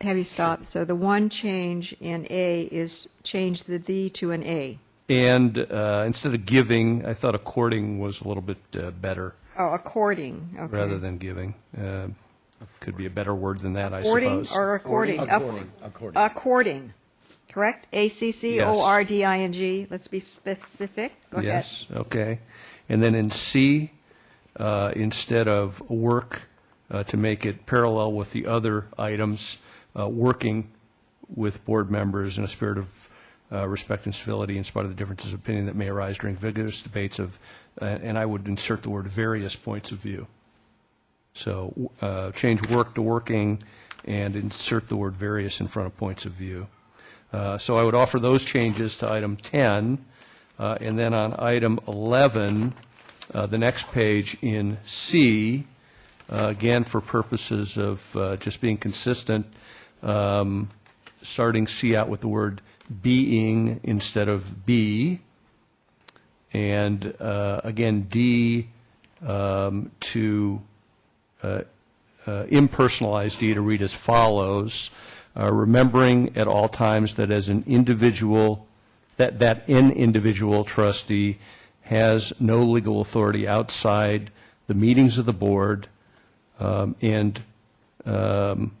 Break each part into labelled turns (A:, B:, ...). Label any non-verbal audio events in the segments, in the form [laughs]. A: Have you stopped? So the one change in A is change the "the" to an "a."
B: And uh, instead of giving, I thought according was a little bit uh, better
A: Oh, according, okay.
B: rather than giving. Uh, Could be a better word than that, I
A: According
B: suppose.
A: or according?
C: According,
A: Ac-
C: according.
A: According, correct? A-C-C-O-R-D-I-N-G, let's be specific. Go ahead.
B: Yes, okay. And then in C, uh, instead of work, uh, to make it parallel with the other items, uh, working with board members in a spirit of uh, respect and civility in spite of the differences of opinion that may arise during vigorous debates of, uh, and I would insert the word various points of view. So uh, change work to working and insert the word various in front of points of view. Uh, So I would offer those changes to item 10. uh, And then on item 11, uh, the next page in C, uh, again, for purposes of uh, just being consistent, um, starting C out with the word being instead of be. And uh, again, D um, to uh, impersonalized deed to read as follows, uh, remembering at all times that as an individual, that, that an individual trustee has no legal authority outside the meetings of the board um, and um,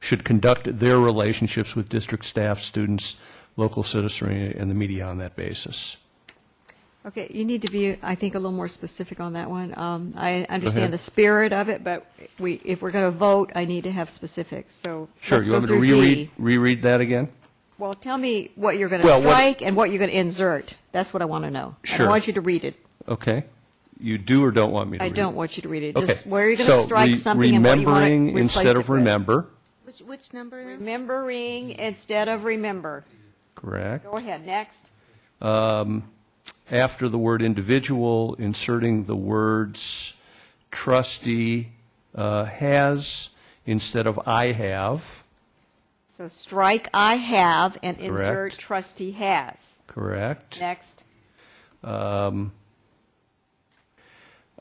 B: should conduct their relationships with district staff, students, local citizenry, and the media on that basis.
A: Okay, you need to be, I think, a little more specific on that one. Um, I
B: ahead.
A: understand the spirit of it, but we, if we're going to vote, I need to have specifics, so
B: Sure,
A: let's
B: you
A: go
B: want me to
A: through D.
B: reread, reread that again?
A: Well, tell me what you're going to
B: Well, what-
A: strike and what you're going to insert. That's what I want to know.
B: Sure.
A: I want you to read it.
B: Okay. You do or don't want me to
A: I
B: read it?
A: don't want you to read it.
B: Okay.
A: Just where you're going to strike something and what you want to
B: So re- remembering
A: replace
B: instead
A: it
B: of
A: with.
B: remember,
D: Which, which number? now?
A: Remembering instead of remember.
B: correct. Um,
A: Go ahead, next.
B: After the word individual, inserting the words trustee uh, has instead of I have,
A: So strike I have and insert
B: Correct.
A: trustee has.
B: correct?
A: Next.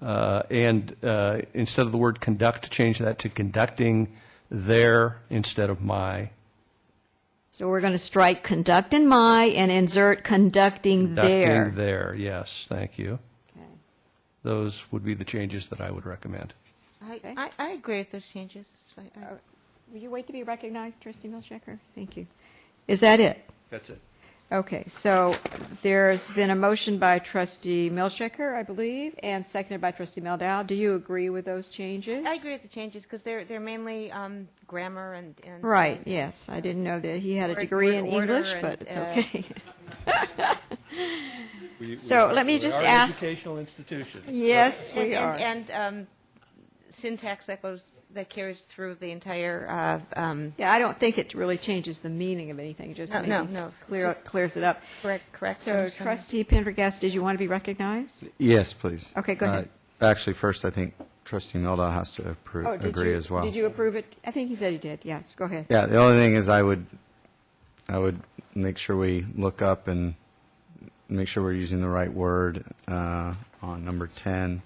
B: Uh, And uh, instead of the word conduct, change that to conducting their instead of my.
A: So we're going to strike conduct and my and insert conducting there.
B: Conducting their, yes, thank you.
A: Okay.
B: Those would be the changes that I would recommend.
D: I,
A: Okay.
D: I, I agree with those changes. I- I-
A: Will you wait to be recognized, trustee Milchecker? Thank you. Is that it?
B: That's it.
A: Okay, so there's been a motion by trustee Milchecker, I believe, and seconded by trustee Meldow. Do you agree with those changes?
D: I agree with the changes because they're, they're mainly um, grammar and. and,
A: Right,
D: um,
A: yes. I didn't know that he had a
D: Word-
A: degree
D: word
A: in
D: order
A: English,
D: and,
A: but it's
D: uh, [laughs]
A: okay. So let me just ask,
B: educational institution.
A: yes,
D: And,
A: we are.
D: and, and um, syntax that goes, that carries through the entire, uh, um,
A: Yeah, I don't think it really changes the meaning of anything, it just
D: No, no,
A: maybe
D: no,
A: clear-
D: just-
A: clears it up.
D: correct, correct.
A: So
D: some-
A: trustee Pendergast, did you want to be recognized?
C: Yes, please.
A: Okay, go ahead.
C: Uh, Actually, first, I think trustee Mildow has to approve,
A: Oh, did
C: agree
A: you-
C: as well.
A: Did you approve it? I think he said he did, yes, go ahead.
C: Yeah, the only thing is I would, I would make sure we look up and make sure we're using the right word uh, on number 10.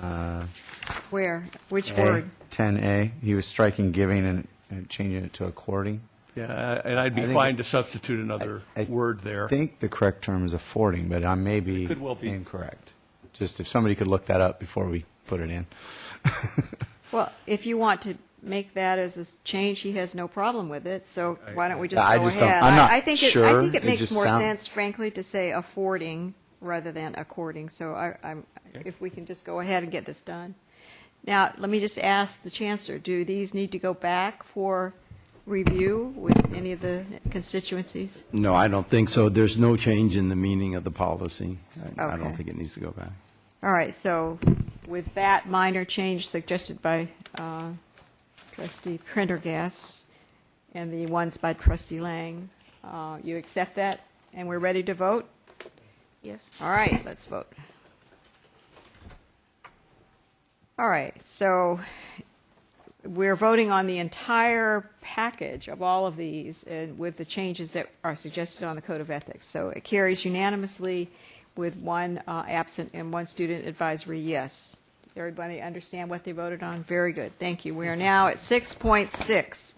C: uh,
A: Where, which
C: A,
A: word?
C: 10A. He was striking giving and- and changing it to according.
B: Yeah, and I'd be
C: I think-
B: fine to substitute another
C: I
B: word there.
C: I think the correct term is affording, but I may be
B: It could well be.
C: incorrect. Just if somebody could look that up before we put it in.
A: Well, if you want to make that as a s- change, he has no problem with it, so why don't we just
C: I
A: go
C: just don't-
A: ahead?
C: I'm not
A: I- I think it- I
C: sure.
A: think it
C: It
A: makes
C: just
A: more
C: sound-
A: sense, frankly, to say affording rather than according, so I, I'm, if we can just go ahead and get this done. Now, let me just ask the Chancellor, do these need to go back for review with any of the constituencies?
E: No, I don't think so. There's no change in the meaning of the policy. I I
A: Okay.
E: don't think it needs to go back.
A: All right, so with that minor change suggested by uh, trustee Prendergast and the ones by trustee Lang, uh, you accept that, and we're ready to vote?
D: Yes.
A: All right, let's vote. All right, so we're voting on the entire package of all of these and with the changes that are suggested on the Code of Ethics. So it carries unanimously with one uh, absent and one student advisory yes. Everybody understand what they voted on? Very good, thank you. We are now at 6.6.